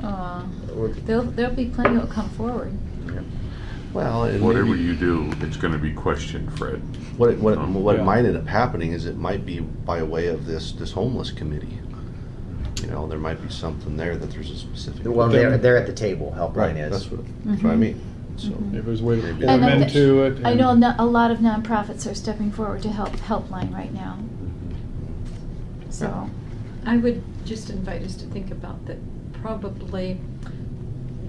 Uh, Would- There'll, there'll be plenty that'll come forward. Well, and Whatever maybe- you do, it's gonna be questioned, Fred. What it, what, it- Um, what yeah. might end up happening is it might be by way of this, this homeless committee. You know, there might be something there that there's a specific. Well, they're, they're at the table, Right, helpline is. that's what, that's what I Mhm. mean, so. If there's a way to And put And them I thi- into it. I know and- no- a lot of nonprofits are stepping forward to help, helpline right now, so. I would just invite us to think about that probably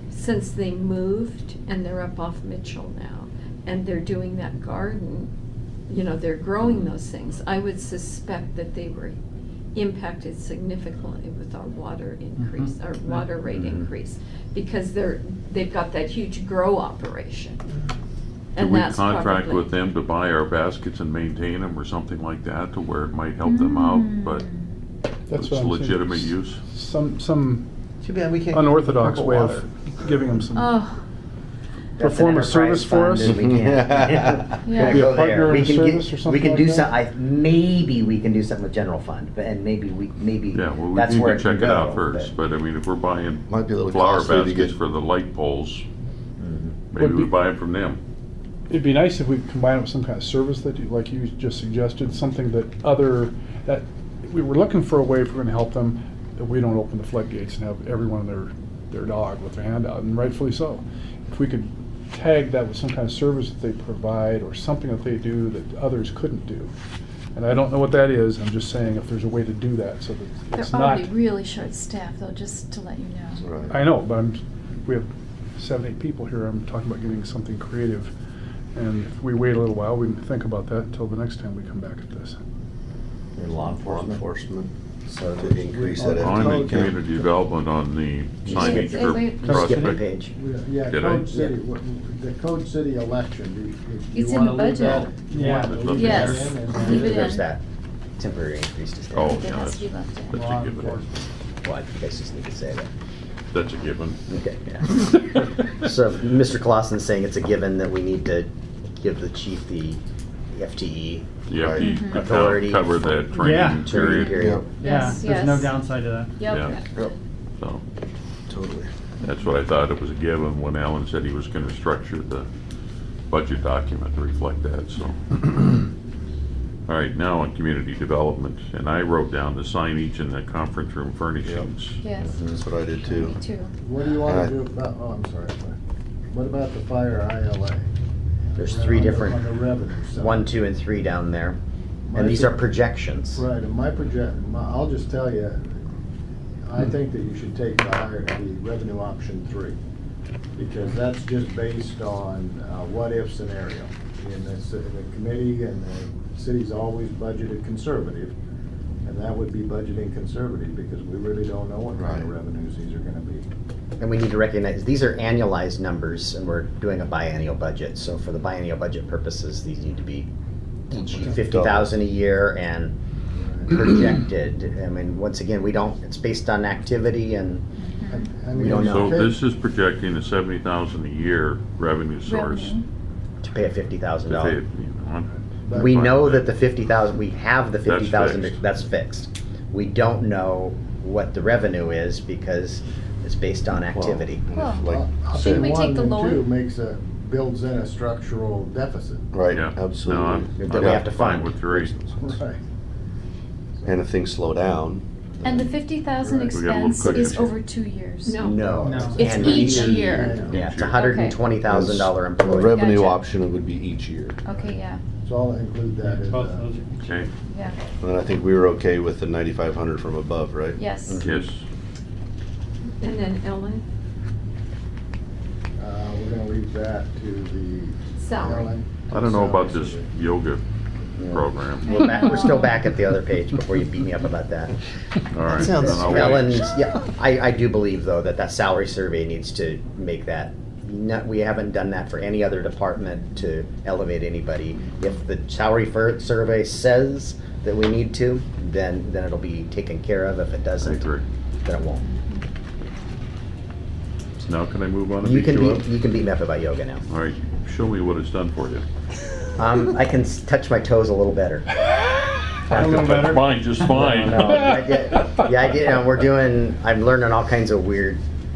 since they moved and they're up off Mitchell now and they're doing that garden, you know, they're growing those things. I would suspect that they were impacted significantly with our water Mm-hmm. increase, our Mhm. water rate Mhm. increase. Because they're, they've got that huge grow operation. Mm-hmm. Do and we that's contract probably- with them to buy our baskets and maintain them or something like that to where it might help them Hmm. Mm. out, but That's it's what I'm saying. legitimate use? Some, some Too bad we can't. unorthodox Purple way of water. giving them some, Oh, That's perform an a service enterprise for fund us? and we can't- Yeah. Be a Go there. partner We in a can get- service or We something can like do that? some, I, maybe we can do something with general fund, but, and maybe we, maybe Yeah, well, we that's need where to it can check it out go. first, but I mean, if we're buying Might be a little flower costly to baskets get- for the light poles, Mhm. maybe Would we be- buy them from them. it'd be nice if we combine it with some kind of service that you, like you just suggested, something that other, that, we were looking for a way if we're gonna help them, that we don't open the floodgates and have everyone their, their dog with their hand out, and rightfully so. If we could tag that with some kind of service that they provide, or something that they do that others couldn't do. And I don't know what that is, I'm just saying if there's a way to do that, so that they're it's not. already really short-staffed though, just to let you know. Right. I know, but I'm, we have seven, eight people here, I'm talking about getting something creative. And if we wait a little while, we can think about that until the next time we come back at this. And law enforcement. enforcement. So To increase that I'm in Okay. community development on the Just signage skip- wait, wait, for just Just skip a prospect. page. Yeah, Did I? Code City, what- the Code City election, do you- do you It's in the want to leave that? budget. you wanna Yeah. leave that Yes. in and Leave then- it There's in. that temporary increase to staff. Oh, It yeah, has that's, to be left in. that's a given. Well, I think I just need to say that. That's a given. Okay, yeah. So Mr. Clausen's saying it's a given that we need to give the chief the E FTE You have to- Right. to co- Authority cover for- that Yeah. training training period, period. Yeah, Yes, there's no yes. downside to that. Yep. Yeah. so. Totally. That's what I thought it was a given when Alan said he was gonna structure the budget document to reflect that, so. All right, now on community development, and I wrote down the signage and the conference room furnishings. Yes, Mm-hmm. Mm-hmm. That's what I did me too. too. What do you want Uh, to do about, oh, I'm sorry, what about the fire ILA? There's On the- three On the different, revenue side. one, two, and three down there. My And these are pro- projections. Right, and my project, my- I'll just tell you, Hmm. I think that you should take the higher, the revenue option three, because that's just based on uh, what-if scenario. And the, ci- the committee and the city's always budgeted conservative, and that would be budgeting conservative, because we really don't know what kind of Right. revenues these are gonna be. And we need to recognize, these are annualized numbers, and we're doing a biennial budget. So for the biennial budget purposes, these need to be each Okay. fifty thousand a year and projected. I mean, once again, we don't, it's based on activity and I- I We mean, don't So know. this is projecting a seventy thousand a year revenue source. Revenue. to pay a fifty thousand to pay, dollar. you know, But- We know that the fifty thousand, we have the That's fifty thousand, fixed. that's fixed. We don't know what the revenue is because it's based on activity. Well, and if, Well, Like, I'll Shouldn't we say take one the and lower? two makes a, builds in a structural deficit. right, Yeah. No, absolutely. I'm- Then I'm we have to fine fund. With three. Right. And if things slow down, And the fifty thousand Right. We got a little expense is cushion. over two years. No. No. No. It's And each we- year. Yeah, it's Okay. a hundred and twenty thousand dollar the employee. revenue Gotcha. option would be each year. Okay, yeah, So I'll include that in. Both uh, those are- Okay, yeah, And then I think we were okay with the ninety-five hundred from above, right? yes. yes. And then Ellen, Uh, we're gonna leave that to the. salary. Ellen. I don't know about this yoga program. We're back, we're still back at the other page before you beat me up about that. All right. sounds then I'll wait. Ellen's, yeah, I, I do believe though that that salary survey needs to make that, not, we haven't done that for any other department to elevate anybody. If the salary fir, survey says that we need to, then, then it'll be taken care of. If it I doesn't, agree. then it won't. Now can I move on and You beat can you up? be, you can beat me up about yoga now. All right, show me what it's done for you. Um, I can s- touch my toes a little better. A little better. Fine, just fine. No, I get- yeah, I get, and we're doing, I'm learning all kinds of weird